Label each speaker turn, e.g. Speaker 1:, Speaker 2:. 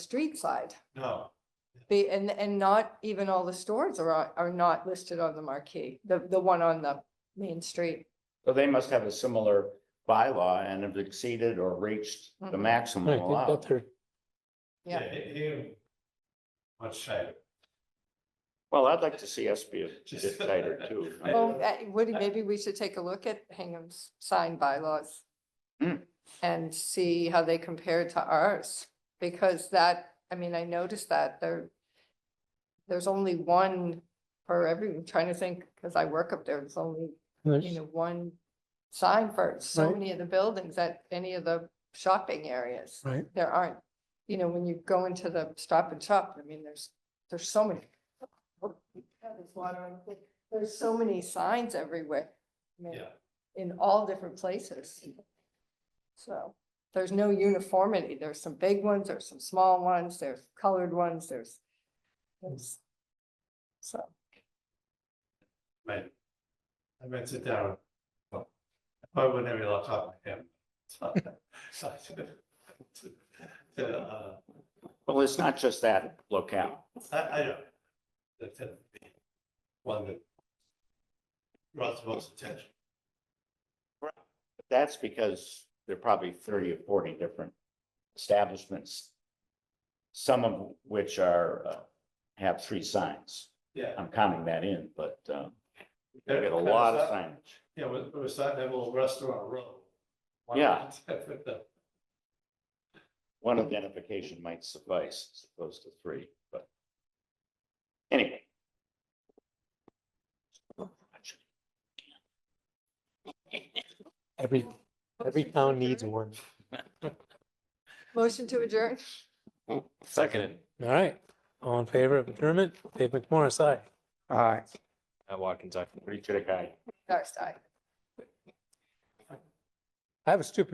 Speaker 1: street side.
Speaker 2: No,
Speaker 1: Be, and, and not even all the stores are, on- are not listed on the marquee, the, the one on the main street.
Speaker 3: So they must have a similar bylaw and have exceeded or reached the
Speaker 1: Mhm.
Speaker 3: maximum
Speaker 4: I think
Speaker 3: allowed.
Speaker 4: that's her.
Speaker 2: yeah,
Speaker 1: Yeah.
Speaker 2: it- it- much tighter.
Speaker 3: Well, I'd like to see us be a bit
Speaker 2: Just-
Speaker 3: tighter too.
Speaker 2: I-
Speaker 1: Well, eh, Woody, maybe we should take a look at Hingham's sign bylaws.
Speaker 3: Hmm.
Speaker 1: And see how they compare to ours, because that, I mean, I noticed that there. There's only one for every, I'm trying to think, because I work up there, there's only you know, one sign for so
Speaker 4: Right.
Speaker 1: many of the buildings at any of the shopping areas.
Speaker 4: Right.
Speaker 1: There aren't, you know, when you go into the stop and shop, I mean, there's, there's so many. Oh, there's water on the- There's so many signs everywhere. I mean,
Speaker 2: Yeah.
Speaker 1: In all different places. So there's no uniformity. There's some big ones, there's some small ones, there's colored ones, there's. there's- So.
Speaker 2: Right. I might sit down. well, I probably wouldn't have your laptop in hand. So- so- to, uh,
Speaker 3: Well, it's not just that locale.
Speaker 2: I, I don't. That tend to be one that draws the most attention.
Speaker 3: That's because there are probably thirty or forty different establishments. Some of which are, uh, have three signs.
Speaker 2: Yeah.
Speaker 3: I'm counting that in, but, um, they
Speaker 2: Yeah,
Speaker 3: get a
Speaker 2: kind
Speaker 3: lot of
Speaker 2: stuff.
Speaker 3: signage.
Speaker 2: Yeah, we, we were starting to have a little restaurant row. Why
Speaker 3: Yeah.
Speaker 2: not? With the-
Speaker 3: One identification might suffice as opposed to three, but. Anyway.
Speaker 4: Every, every town needs one.
Speaker 1: Motion to adjourn?
Speaker 5: Second,
Speaker 4: All right. All in favor of adjournment? Dave McMorris, aye.
Speaker 3: Aye.
Speaker 5: at Watkins, I.
Speaker 3: Richard, aye.
Speaker 1: Darcy.
Speaker 4: I have a stupid